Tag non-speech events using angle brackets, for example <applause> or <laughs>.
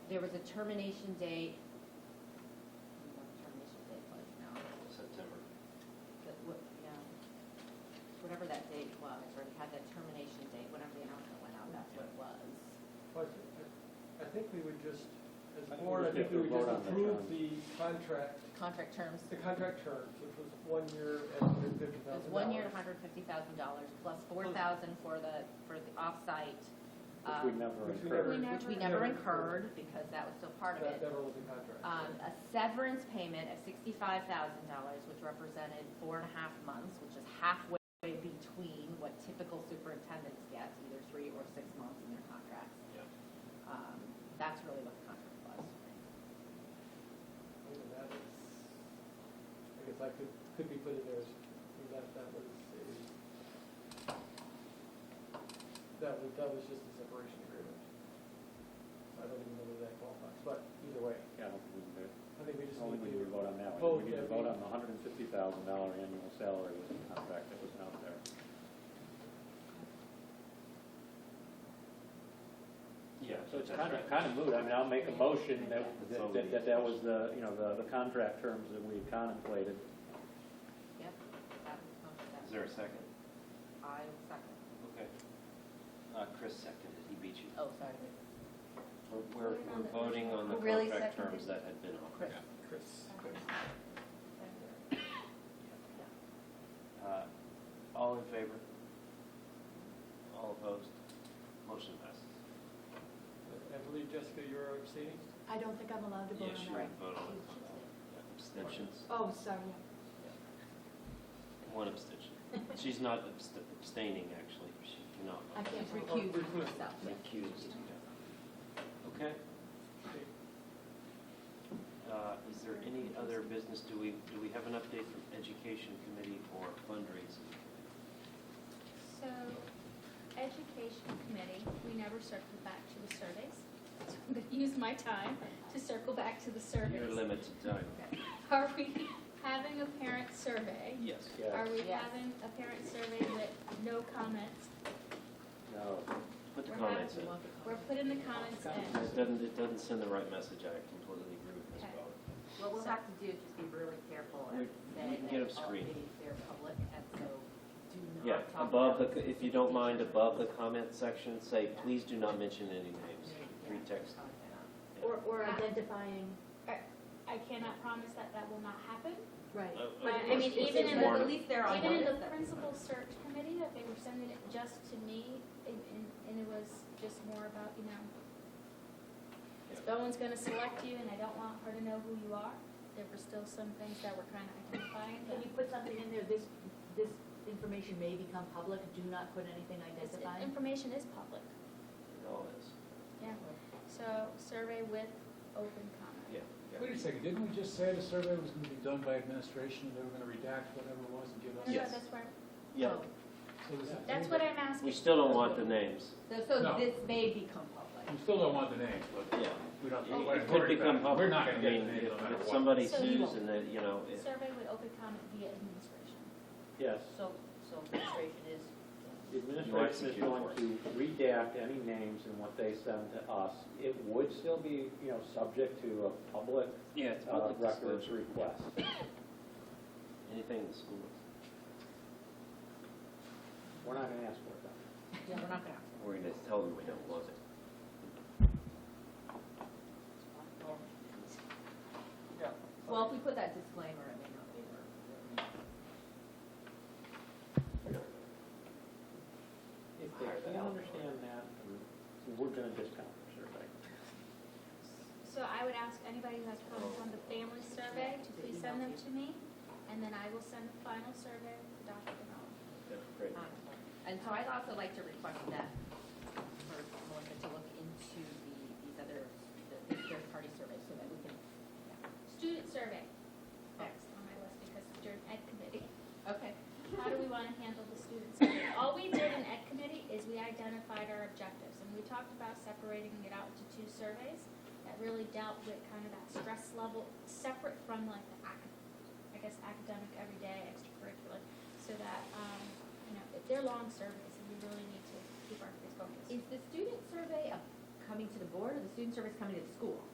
there was a termination date. I don't know what the termination date was now, September. but what, yeah, whatever that date was, or it had that termination date, whenever the announcement went out, that's what it was. Well, I I- I think we would just, as a I think board, I we just think we have to would just vote on that, approve John. the contract, Contract terms, the contract terms, which was one year and hundred fifty it was thousand dollars. one year, hundred fifty thousand dollars, plus four thousand for the, for the offsite. um, Which we never which we never- incurred. Which we never incurred, because that was still part of That it. never was a contract. Um, a severance payment of sixty-five thousand dollars, which represented four and a half months, which is halfway between what typical superintendents get, either three or six months in their contracts. Yep. Um, that's really what the contract was. I mean, that was, I guess I could, could be put in there, as- that, that was a, that was, that was just a separation agreement. I don't even know whether that qualifies, but either way, Yeah, I don't think we can do it. I think we just Only need we to. need to vote on that vote one. We need to that vote we- on the hundred and fifty thousand dollar annual salary with the contract that was out there. Yeah, so it's kind of, kind of moot. I mean, I'll make a motion that, that- that, that that was the, you know, the, the contract terms that we contemplated. Yep, that was the contract. Is there a second? I second. Okay. Uh, Chris seconded, he beat you. Oh, <coughs> sorry. We're- We're, we're voting on the Who really contract seconded? terms that had been offered. Chris. Chris. Uh, All in favor? All opposed? Motion passes. I believe, Jessica, you're abstaining? I don't think I'm allowed to vote Yeah, she on that. would vote on it. Abstentions? Oh, sorry. <laughs> One abstention. She's not abst- abstaining, actually, she cannot. I can't Oh, recuse recuse. myself. Recused. Okay. Uh, Is there any other business? Do we, do we have an update from Education Committee or fundraising? So, education committee, we never circle back to the surveys. <laughs> So I'm gonna use my time to circle back to the Your surveys. limited time. Are we <laughs> having a parent survey? Yes. Yeah, Are we Yes. having a parent survey with no comments? no, Put the We're comments in. We're putting the comments in. It doesn't, it doesn't send the right message, I completely agree with Ms. Okay. Bowden. What we'll have to do is just be really careful We- and we say can get that them all screened. meetings, they're public, and so do not Yeah, talk above about the, if you don't mind, specific above the comment section, say, please do not mention any names. Free text. Yeah. Or, or Ah. identifying, I cannot promise that that will not happen. right. Of- of But, I course, mean, it's even in the- warning. At least they're on. Even in the notice. principal search committee, that they were sending it just to me, and, and, and it was just more about, you know, if Bowen's gonna select you and I don't want her to know who you are, there were still some things that were kinda identifying, Can but you put something in there, this, this information may become public, do not put anything this identifying? information is public, It all is. yeah. So, survey with open comment. Yeah. yeah. Wait a second, didn't we just say the survey was gonna be done by administration, and they were gonna redact whatever it was and give us? No, no, Yes. That's where, Yeah, So this is- that's what I'm asking. we still don't want the names. So, so No. this may become public. We still don't want the names, but Yeah. we don't. It- we're It could worried about become it. public. We're not I gonna get mean, the names no if- matter If what. somebody So you sues won't. and then, you know, it- Survey with open comment via administration. yes. So, so frustration is, The You administration execute is going for it. to redact any names and what they send to us. It would still be, you know, subject to a public yeah, it's uh, public records disclosure. request. Anything in the school. We're not gonna ask for it, though. Yeah, we're not gonna. We're gonna tell them we don't want it. Yeah. Well, if we put that disclaimer, it may not be worth If they can't understand that, Mm-hmm. we're gonna discount their survey. So I would ask anybody who has comments on the family survey to please send them to me, and then I will send the final survey to Dr. Demello. Yeah, Great. it. Um, And so I'd also like to request that for Melissa to look into the, these other, the third-party surveys so that we can. Student survey, next on my list, because during ed committee, Okay. how do we want to handle the student survey? All we did in ed committee is we identified our objectives, and we talked about separating it out into two surveys that really dealt with kind of that stress level, separate from like the academic, I guess academic, everyday, extracurricular, so that, um, you know, they're long surveys, and we really need to keep our kids focused. Is the student survey a coming to the board or the student service coming to the school?